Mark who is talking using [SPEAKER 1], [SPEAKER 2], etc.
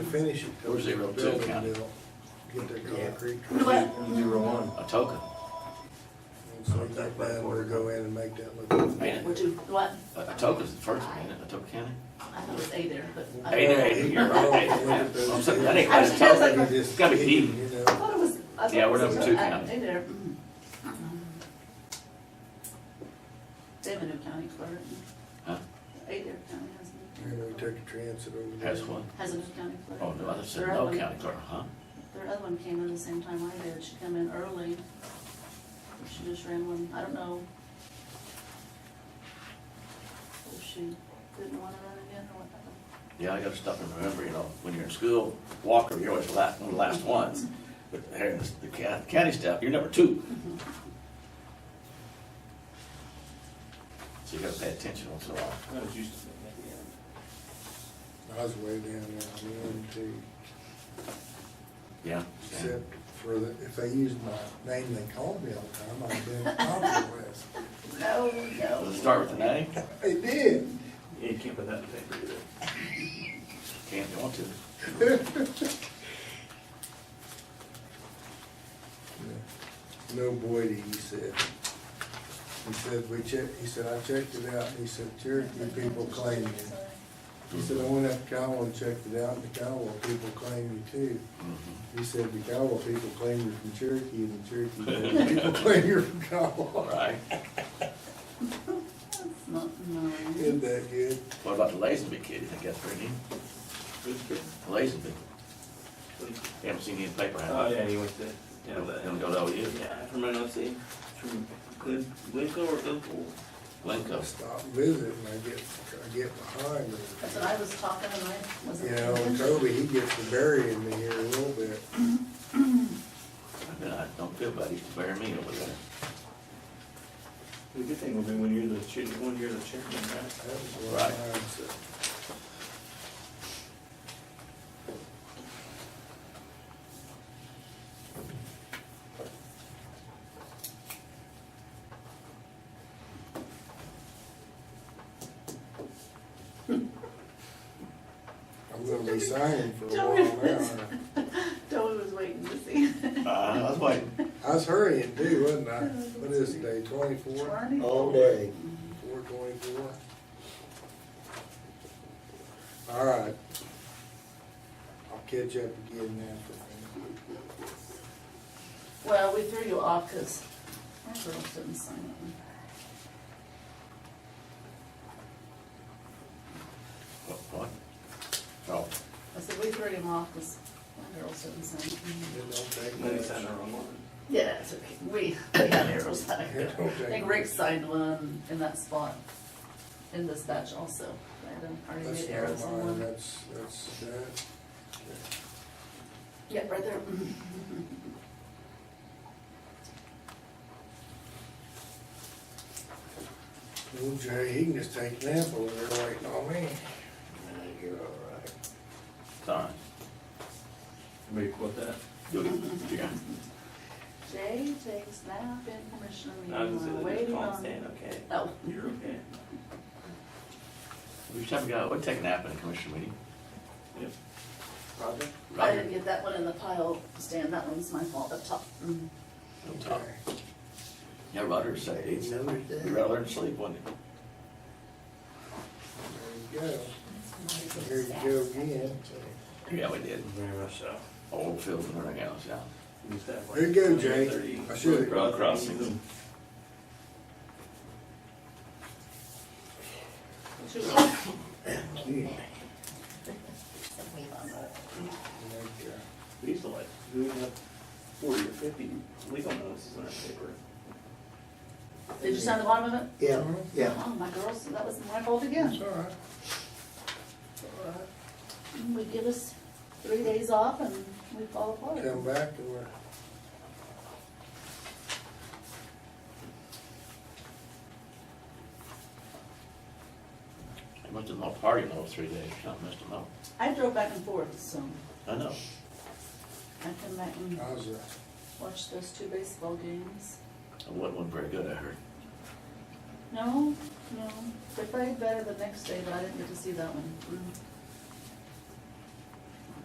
[SPEAKER 1] finish it. till
[SPEAKER 2] Or zero
[SPEAKER 1] the
[SPEAKER 2] two,
[SPEAKER 1] building
[SPEAKER 2] kind of.
[SPEAKER 1] bill, Get their
[SPEAKER 3] Yeah.
[SPEAKER 1] concrete.
[SPEAKER 3] Zero one.
[SPEAKER 2] a token,
[SPEAKER 1] And So that man will go in and make that look.
[SPEAKER 2] ain't it?
[SPEAKER 4] Which is what,
[SPEAKER 2] A, a token's the first one, ain't it, Atoka County?
[SPEAKER 4] I thought it was A there, but. I-
[SPEAKER 2] Hey there, hey, you're right. I'm sorry, that ain't quite a token. It's gotta be deep.
[SPEAKER 1] You
[SPEAKER 4] I
[SPEAKER 1] know,
[SPEAKER 4] thought it was. I thought
[SPEAKER 2] Yeah, we're
[SPEAKER 4] it was
[SPEAKER 2] number
[SPEAKER 4] a-
[SPEAKER 2] two
[SPEAKER 4] uh,
[SPEAKER 2] county.
[SPEAKER 4] A there. mm. Devon County Clerk.
[SPEAKER 2] Huh?
[SPEAKER 4] A there County has a,
[SPEAKER 1] and we took the transit over there.
[SPEAKER 2] That's one.
[SPEAKER 4] has a new county clerk.
[SPEAKER 2] Oh, no, I said
[SPEAKER 4] Their
[SPEAKER 2] no
[SPEAKER 4] other one-
[SPEAKER 2] county clerk, huh?
[SPEAKER 4] Their other one came in the same time I did, she came in early. She just ran one, I don't know. If she didn't wanna run again or what happened.
[SPEAKER 2] Yeah, I gotta stop and remember, you know, when you're in school, Walker, you're always the last, one of the last ones. But here in the ca- county staff, you're number two. So you gotta pay attention once in a while.
[SPEAKER 3] That was used to be at the end.
[SPEAKER 1] I was way down there, one, two,
[SPEAKER 2] Yeah. yeah.
[SPEAKER 1] except for the, if they used my name, they called me all the time, I'd been compromised.
[SPEAKER 4] No,
[SPEAKER 2] Does it
[SPEAKER 4] no.
[SPEAKER 2] start with an A?
[SPEAKER 1] They did.
[SPEAKER 3] Yeah, you can't put that in the paper either.
[SPEAKER 2] Can't, you want to.
[SPEAKER 1] No Boydie, he said. He said, we checked, he said, I checked it out, he said, Cherokee people claim you. He said, I went up to Kiowa and checked it out, and the Kiowa people claim you too.
[SPEAKER 2] Mhm.
[SPEAKER 1] He said, the Kiowa people claim you're from Cherokee, and the Cherokee people claim you're from
[SPEAKER 2] All
[SPEAKER 1] Kiowa.
[SPEAKER 2] right.
[SPEAKER 4] That's not, no.
[SPEAKER 1] Isn't that good?
[SPEAKER 2] What about the Lazenby kid? You think that's pretty neat?
[SPEAKER 3] Who's good?
[SPEAKER 2] Lazenby. You haven't seen any paper,
[SPEAKER 3] Oh,
[SPEAKER 2] have you?
[SPEAKER 3] yeah, he went to, yeah,
[SPEAKER 2] He'll-
[SPEAKER 3] but.
[SPEAKER 2] he'll go to OU.
[SPEAKER 3] Yeah, from NOC, from Glen, Glencoe or Glenpool.
[SPEAKER 2] Glencoe.
[SPEAKER 1] Stop visiting, I get, I get behind.
[SPEAKER 4] That's what I was talking and I wasn't.
[SPEAKER 1] You know, and Toby, he gets to burying me here a little bit.
[SPEAKER 2] I mean, I don't feel bad. He used to bury me over there.
[SPEAKER 3] The good thing will be when you're the chair, when you're the chairman, right?
[SPEAKER 1] That was what I
[SPEAKER 2] Right.
[SPEAKER 1] said. I'm gonna be signing for a while now. aren't
[SPEAKER 4] Toby was waiting to see.
[SPEAKER 2] Uh, I was waiting.
[SPEAKER 1] I I was hurrying too, wasn't I? What is today, twenty-four?
[SPEAKER 4] Twenty?
[SPEAKER 5] All day.
[SPEAKER 1] Four twenty-four. All right. I'll catch up again after.
[SPEAKER 4] Well, we threw you off because our girls didn't sign it.
[SPEAKER 2] What? what? Oh,
[SPEAKER 4] I said, we threw him off because our girls didn't sign it.
[SPEAKER 1] It don't take
[SPEAKER 3] And then he signed the
[SPEAKER 1] much.
[SPEAKER 3] wrong one.
[SPEAKER 4] Yeah, it's okay. We, we had arrows that I
[SPEAKER 1] It don't
[SPEAKER 4] I
[SPEAKER 1] take
[SPEAKER 4] think Rick signed one in that spot in this batch also. I had already
[SPEAKER 1] That's
[SPEAKER 4] made arrows
[SPEAKER 1] not
[SPEAKER 4] in
[SPEAKER 1] mine,
[SPEAKER 4] one.
[SPEAKER 1] that's, that's that.
[SPEAKER 4] Yeah, right there.
[SPEAKER 1] Little Jay, he can just take a nap over there waiting on me.
[SPEAKER 5] Nah, You're all right.
[SPEAKER 2] it's all right.
[SPEAKER 3] Everybody quote that?
[SPEAKER 2] You'll get, you're gonna-
[SPEAKER 4] Jay takes nap in commissioner meeting.
[SPEAKER 3] I was gonna
[SPEAKER 4] while
[SPEAKER 3] say, they just
[SPEAKER 4] waiting
[SPEAKER 3] call and
[SPEAKER 4] on-
[SPEAKER 3] stand, okay?
[SPEAKER 4] Oh.
[SPEAKER 3] You're okay.
[SPEAKER 2] We should have a guy, we'd take a nap in a commission meeting.
[SPEAKER 3] Yep. Roger?
[SPEAKER 4] I didn't get that one in the pile, Stan, that one's my fault up top. Mm.
[SPEAKER 2] Don't talk.
[SPEAKER 1] Okay.
[SPEAKER 2] Yeah, Roger said,
[SPEAKER 5] Didn't
[SPEAKER 2] he's,
[SPEAKER 5] notice
[SPEAKER 2] he
[SPEAKER 5] that.
[SPEAKER 2] rather than sleep, wasn't he?
[SPEAKER 1] There you go. Here you go again.
[SPEAKER 2] Yeah, we did.
[SPEAKER 3] Very much so.
[SPEAKER 2] Old fields and everything else, yeah.
[SPEAKER 3] Who's that one?
[SPEAKER 1] There you go, Jay.
[SPEAKER 3] 30.
[SPEAKER 1] I should've-
[SPEAKER 3] Road
[SPEAKER 2] Crossing.
[SPEAKER 4] Shoot.
[SPEAKER 1] Gee,
[SPEAKER 4] We love
[SPEAKER 1] like,
[SPEAKER 4] it.
[SPEAKER 1] uh,
[SPEAKER 3] We used to like, we would have forty or fifty legal notices in our paper.
[SPEAKER 4] Did you sign the bottom of it?
[SPEAKER 5] Yeah, yeah.
[SPEAKER 4] Oh, my girls, that was my fault
[SPEAKER 1] It's
[SPEAKER 4] again.
[SPEAKER 1] all right.
[SPEAKER 4] We give us three days off and we fall apart.
[SPEAKER 1] Come back and we're.
[SPEAKER 2] They must have been all partying those three days, something must have been. all-
[SPEAKER 4] I drove back and forth, so
[SPEAKER 2] I know.
[SPEAKER 4] I come back and
[SPEAKER 1] I was, uh,
[SPEAKER 4] watch those two baseball games.
[SPEAKER 2] It wasn't wasn't very good, I heard.
[SPEAKER 4] No, no, they played better the next day, but I didn't get to see that one. Mm.